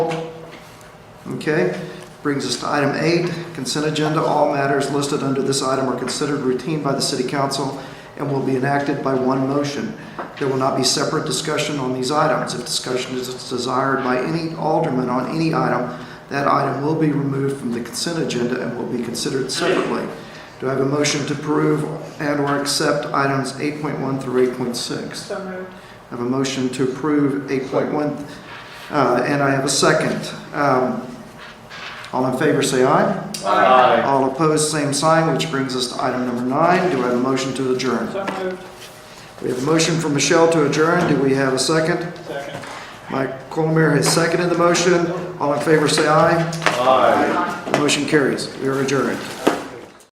Okay, brings us to item eight, consent agenda. All matters listed under this item are considered routine by the city council and will be enacted by one motion. There will not be separate discussion on these items. If discussion is desired by any alderman on any item, that item will be removed from the consent agenda and will be considered separately. Do I have a motion to approve and/or accept items 8.1 through 8.6? So moved. I have a motion to approve 8.1, uh, and I have a second. Um, All in favor, say aye. Aye. All opposed, same sign, which brings us to item number nine. Do I have a motion to adjourn? So moved. We have a motion from Michelle to adjourn. Do we have a second? Second. Mike Colmeyer has seconded the motion. All in favor, say aye. Aye. Motion carries. We are adjourned.